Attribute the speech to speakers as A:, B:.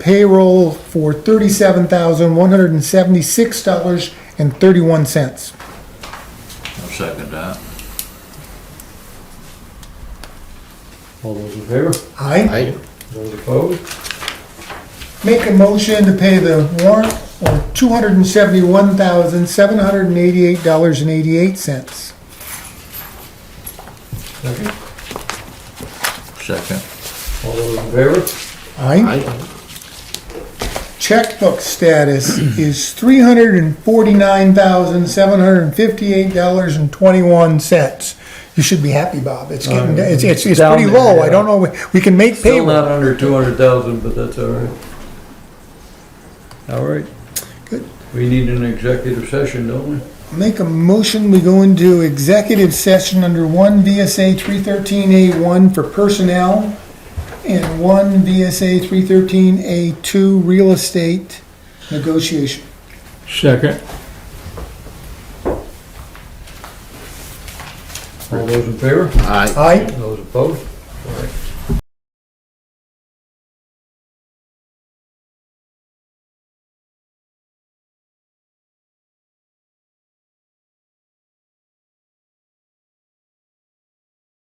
A: payroll for thirty-seven thousand, one hundred and seventy-six dollars and thirty-one cents.
B: I'll second that.
C: All those in favor?
A: I
D: Aye.
C: Those opposed?
A: make a motion to pay the warrant for two hundred and seventy-one thousand, seven hundred and eighty-eight dollars and eighty-eight cents.
C: Second.
B: Second.
C: All those in favor?
A: I
D: Aye.
A: checkbook status is three hundred and forty-nine thousand, seven hundred and fifty-eight dollars and twenty-one cents. You should be happy, Bob. It's getting, it's, it's, it's
C: Uh, Down
A: pretty
C: there,
A: low. I
C: yeah.
A: don't know, we- we can make
C: Still
A: payroll.
C: not under two hundred thousand, but that's all right. All right.
A: Good.
C: We need an executive session, don't we?
A: Make a motion, we go into executive session under one VSA three thirteen A one for personnel and one VSA three thirteen A two real estate negotiation.
C: Second. All those in favor?
D: Aye.
A: Aye.
C: Those opposed?